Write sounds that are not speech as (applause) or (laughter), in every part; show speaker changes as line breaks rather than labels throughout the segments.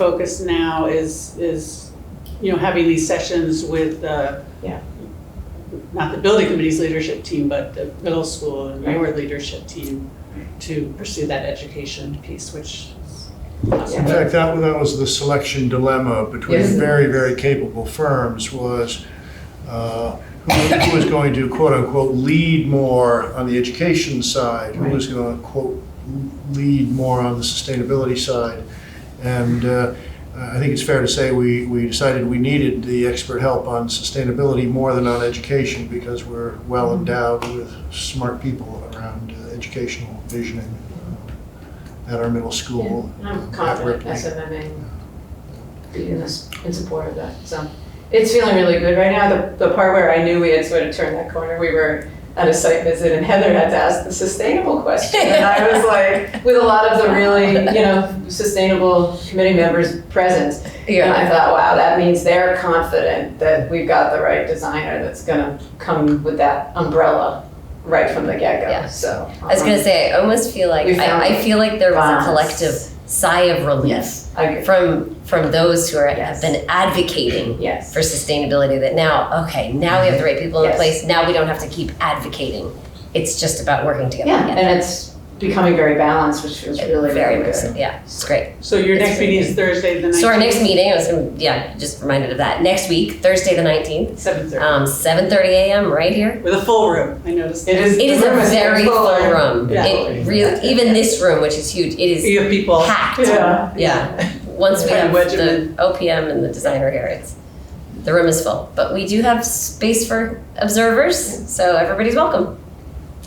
focus now is, is, you know, having these sessions with, uh,
Yeah.
not the building committee's leadership team, but the middle school and lower leadership team to pursue that education piece, which is awesome.
In fact, that, that was the selection dilemma between
Yes.
very, very capable firms was uh, who who was going to quote unquote lead more on the education side? Who was going to quote lead more on the sustainability side? And uh, I think it's fair to say we, we decided we needed the expert help on sustainability more than on education because we're well endowed with smart people around uh, educational visioning uh, at our middle school
I'm confident SMMA will be in this, in support of that, so. It's feeling really good right now, the, the part where I knew we had sort of turned that corner, we were at a site visit and Heather had to ask the sustainable question. And I
(laughs)
was like, with a lot of the really, you know, sustainable committee members present. And I thought, wow, that means they're confident that we've got the right designer that's gonna come with that umbrella right from the
Yeah.
get-go, so.
I was gonna say, I almost feel like
We found
I, I feel like there was
balance.
a collective sigh of relief
Yes, I agree,
from from those who are,
Yes.
have been advocating
yes.
for sustainability. That now, okay, now we have the right people in
Yes.
place. Now we don't have to keep advocating. It's just about working together.
Yeah,
again.
and it's becoming very balanced, which feels really,
very
very
much so.
good.
Yeah, it's great.
So your next meeting is Thursday, the nineteenth?
So our next meeting, I was gonna- yeah, just reminded of that. Next week, Thursday the nineteenth,
Seven thirty,
um, seven thirty a.m. right here.
with a full room, I noticed.
It is,
It is
the
a
room is
very full
fuller.
room.
Yeah.
It really, even this room, which is huge, it is
You have people.
packed.
Yeah.
Yeah. Once we
Try to
have
wedge 'em
the OPM and the designer here, it's, the room is full. But we do have space for observers, so everybody's welcome.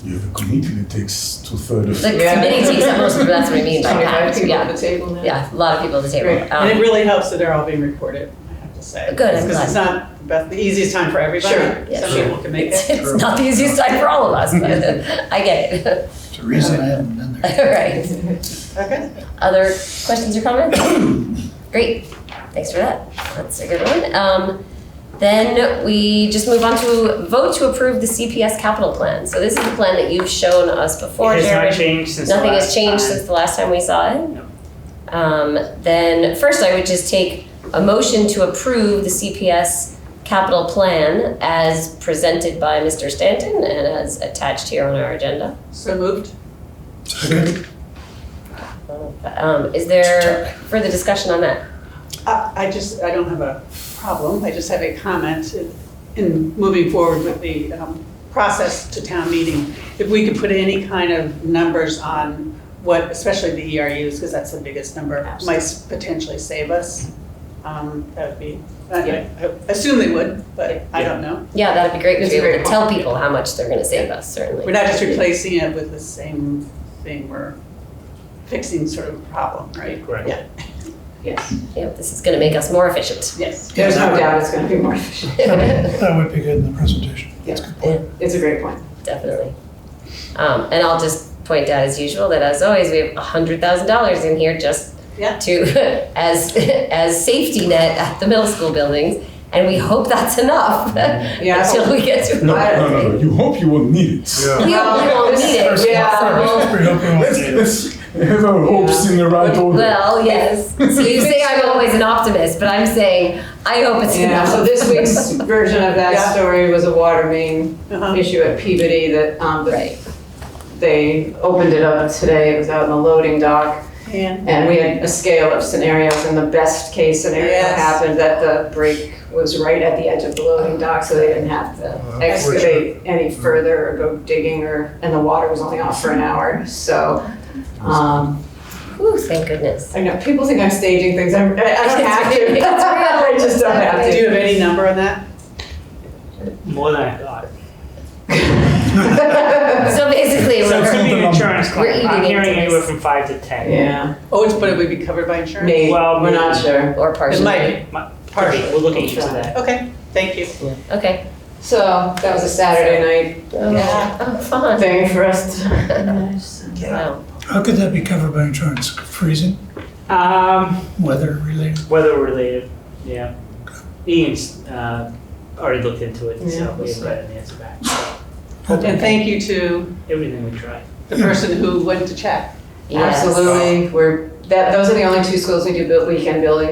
Yeah, the committee takes two thirds
The
of.
Yeah.
committee takes up most of, that's what I
(laughs)
mean by
Twenty-five
packed,
people at
yeah.
the table (laughs) now.
Yeah, a lot of people at the
Great.
table.
And it
Um,
really helps that they're all being recorded, I have to say.
Good, I'm
Because it's not the best, the easiest time for everybody.
Sure,
yeah,
Some
sure.
people can make
(laughs) It's
it.
it's not the easiest time for all of us, but I get it. (laughs)
It's a reason I haven't been there.
All right.
Okay.
Other questions or comments? (coughs) Great, thanks for that. That's a good one. Um, then we just move on to vote to approve the CPS capital plan. So this is the plan that you've shown us before,
It has
Jared.
not changed since the
Nothing has
last
changed
time.
since the last time we saw it?
No.
Um, then first I would just take a motion to approve the CPS capital plan as presented by Mr. Stanton and as attached here on our agenda.
So moved.
Second,
Um, is there further discussion on that?
I Uh, I just, I don't have a problem, I just have a comment in- in moving forward with the um, process to town meeting. If we could put any kind of numbers on what, especially the E ERUs, because that's the biggest number, might s- potentially save us, um, that would be, I- I assume they would, but I don't know.
Yeah, that'd be great to
It's
be
very
able to tell
helpful.
people how much they're gonna save us, certainly.
We're not just replacing it with the same thing, we're fixing sort of a problem, right?
Correct.
Yeah,
Yes,
Yep, this is gonna make us more efficient.
yes.
there's no doubt it's gonna be more efficient.
That would be good in the presentation. That's a good point.
It's a great point.
Definitely. Um, and I'll just point out as usual that as always, we have a hundred thousand dollars in here just
Yeah.
to, (laughs) as, as safety net at the middle school buildings. And we hope that's enough (laughs)
Yeah.
until we get to.
(laughs) no, no, no, no, you hope you won't need it.
Yeah.
We we won't need it.
Yeah.
So,
We hope we won't
Let's,
need
(laughs)
it.
let's have our hopes in the right order.
Well, yes. So you say I'm always an optimist, but I'm saying, I hope
(laughs)
it's
Yeah,
enough.
so this week's version of
Yeah.
that story was a water main
Uh-huh.
issue at Peabody that, um, that
(laughs) Right.
they opened it up today, it was out in the loading dock.
And
And we had a scale of scenarios, and the best case scenario
Yes.
happened that the break was right at the edge of the loading dock, so they didn't have to
Oh, that's
excavate any further or go digging, or and the water was only off for an hour. So, um,
Ooh, thank goodness.
I know people think I'm staging things. I'm, I I don't have to.
It's real.
(laughs) I just don't have
do
to.
you have any number on that?
More than I thought.
So basically,
So
we're,
assuming insurance
We're
claim, I'm
eating into
hearing
this.
anywhere from five to
(laughs)
ten.
yeah,
Oh, it's, but it would be covered by insurance?
maybe
Well,
we're not sure.
or partially.
It might,
Partially,
partially.
we're looking into that.
Okay, thank you.
Okay.
So that was a Saturday
Yeah.
Oh,
night
fun.
thing for us. To,
(laughs) Wow.
How could that be covered by insurance? Freezing,
Um,
weather related?
weather related, yeah. Ian's, uh, already looked into it,
Yeah,
so we
we'll
haven't got an answer back, so
And thank you to
everything we tried.
the person who went to check.
Yes.
Absolutely, we're that, those are the only two schools we do build, weekend building